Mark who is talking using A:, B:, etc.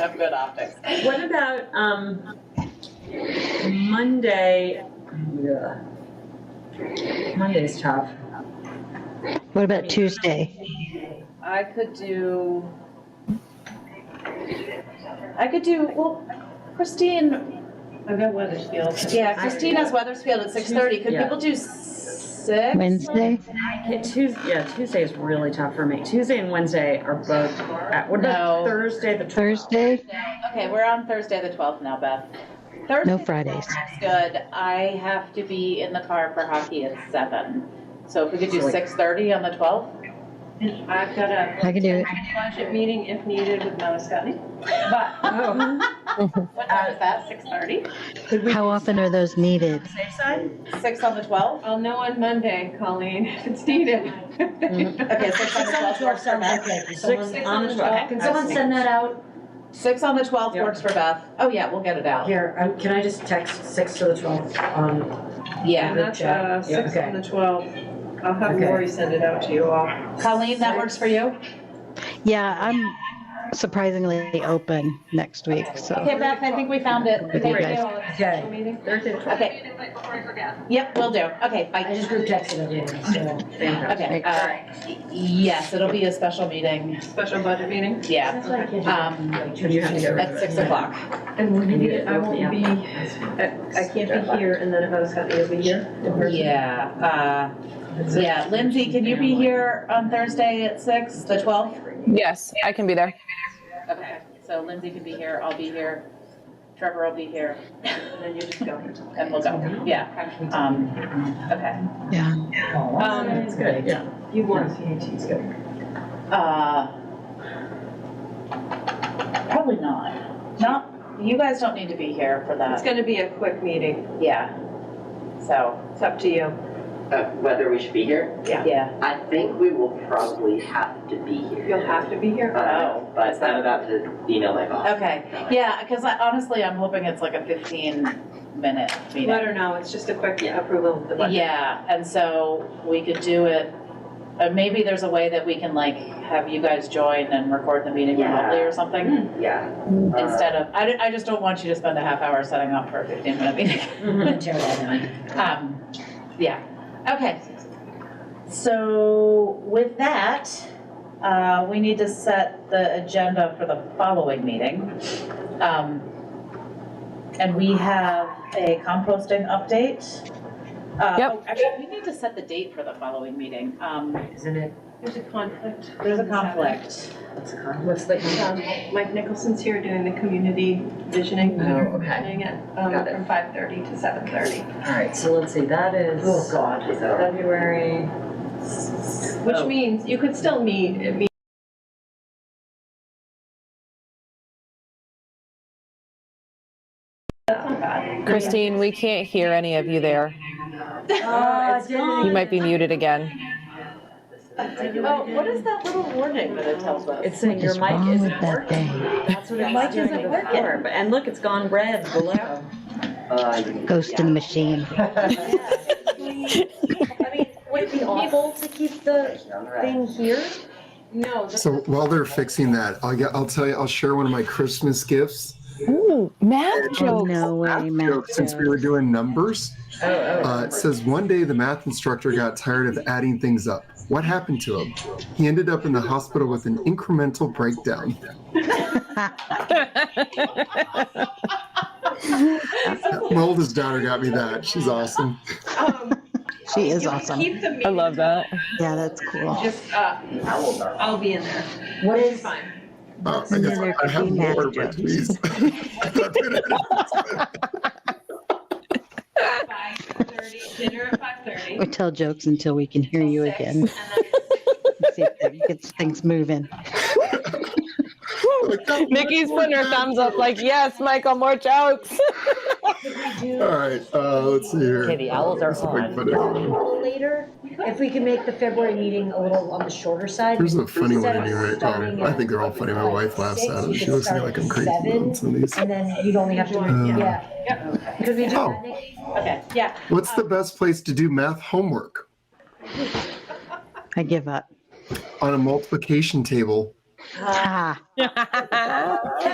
A: Have good optics.
B: What about, um, Monday? Ugh. Monday's tough.
C: What about Tuesday?
D: I could do, I could do, well, Christine,
A: I've got Weathersfield.
D: yeah, Christine has Weathersfield at six thirty, could
B: Yeah.
D: people do six?
C: Wednesday?
B: Yeah, Tues, yeah, Tuesday is really tough for me. Tuesday and Wednesday are both, at- what about
D: No.
B: Thursday, the 12th?
C: Thursday?
D: Okay, we're on Thursday the twelfth now, Beth. Thursday
C: No
D: the
C: Fridays.
D: 12th is Good, I have to be in the car for hockey at seven, so if we could
B: So
D: do
B: like-
D: six thirty on the twelfth?
A: I've got a
C: I can do it.
A: budget meeting if needed with Mama Scotty. But
B: Oh,
D: What time is that, six thirty?
B: could we
C: How often are those needed?
B: safe side?
D: Six on the twelfth?
A: I'll know on Monday, Colleen, if it's needed.
D: Okay, six on the twelfth works for Beth.
B: Six on the 12th.
E: Can someone send that out?
D: Six on the twelfth
B: Yeah.
D: works for Beth, oh yeah, we'll get it out,
E: Here, um, can I just text six to the twelfth on?
D: yeah.
A: And that's uh,
E: Yeah,
A: six on
E: okay.
A: the 12th. I'll have
E: Okay.
A: Lori send it out to you all.
D: Colleen, that works for you?
C: Yeah, I'm surprisingly open next week, so.
D: Okay, Beth, I think we found it.
C: With you guys.
E: Okay,
B: Thursday, the 12th.
D: Okay. Yep, we will do. Okay,
E: I
D: bye.
E: just group texted everyone, so.
D: Okay. uh, Yes, it'll be a special meeting.
A: Special budget meeting.
D: Yeah,
E: why I
D: Um,
E: like,
B: and you have to get rid
D: at 6 o'clock.
A: And we'll
B: need
A: need
B: it.
A: I won't be, I I can't be here and then if Mama Scotty will be here. in person.
D: Yeah. uh, Yeah, Lindsay, can you be here on Thursday at 6, the 12th?
F: Yes, I can be there.
D: Okay, so Lindsay can be here, I'll be here, Trevor will be here,
A: And then you just go.
D: and we'll go. Yeah. um, Okay.
C: Yeah.
D: Um,
B: It's good, yeah.
A: You want CATs, go.
D: Uh, Probably not. Not, you guys don't need to be here for
A: It's
D: that.
A: gonna be a quick meeting.
D: Yeah. So,
A: It's up to you.
G: uh, whether we should be here.
D: yeah.
G: I think we will probably have to be here.
A: You'll have to be here.
G: Uh, But I'm about to email my boss.
D: Okay, yeah, because I, honestly, I'm hoping it's like a 15-minute
A: Let
D: meeting.
A: her know, it's just a quick
G: Yeah.
A: approval of the budget.
D: Yeah, and so we could do it, uh, maybe there's a way that we can like have you guys join and record the meeting
G: Yeah.
D: remotely or something
G: Yeah.
D: instead of, I, don't- I just don't want you to spend a half hour setting up for a 15-minute meeting. Um, yeah, okay. So with that, uh, we need to set the agenda for the following meeting. Um, and we have a composting update. Uh,
F: Yep.
D: oh, Actually, we need to set the date for the following meeting. Um,
E: Isn't it?
A: There's a conflict.
D: there's a conflict.
E: What's the?
A: Um, Mike Nicholson's here doing the community visioning.
E: Oh, okay.
A: Doing it um,
E: Got it.
A: from 5:30 to 7:30,
E: All right, so let's see, that is.
A: Oh,
E: God.
G: Is that all right?
E: February.
A: which means you could still meet. It means That's not bad.
F: Christine, we can't hear any of you there.
B: Oh,
F: You might be muted again.
D: Oh, what is that little warning that it tells us?
B: It's saying your mic
C: What's wrong
B: isn't
C: with that
B: working.
C: thing?
B: That's what it
D: Mic
B: was doing
D: isn't
B: before, but- and look, it's gone red below.
G: Uh, you-
C: Ghost in the machine.
H: Would it be able to keep the
G: All right.
H: thing here?
A: No, the-
I: So while they're fixing that, I'll get, I'll tell you, I'll share one of my Christmas gifts.
F: Ooh, math
C: Oh,
F: jokes.
C: no way, Matt.
I: Since we were doing numbers, uh, it says one day the math instructor got tired of adding things up. What happened to him? He ended up in the hospital with an incremental breakdown. My oldest daughter got me that. She's awesome.
A: um,
C: She is
A: you can
C: awesome.
A: keep the meeting.
F: I love that.
C: Yeah, that's cool.
A: Just, uh, I'll be in there.
E: What
A: It's
E: is,
A: fine.
I: Uh, I guess I have more, but please.
A: Five thirty, dinner at five thirty.
C: We tell jokes until we can hear you again. See if that gets things moving.
F: Nikki's putting her thumbs up like, yes, Michael, more jokes.
I: All right, uh, let's see here.
E: Okay, the owls are
I: Let's see if I can
E: on.
I: put it on.
H: Later, if we can make the February meeting a little on the shorter side.
I: There's a funny one
H: Instead of
I: anyway.
H: starting
I: Oh, I think they're all funny. My wife laughs at them. She looks at me like I'm crazy on some of these.
H: And then you'd only have to,
I: Um,
H: yeah. Could we do
I: Oh.
H: that, Nick?
D: Okay, yeah,
I: What's
H: Um,
I: the best place to do math homework?
C: I give up.
I: On a multiplication table.
C: Ah.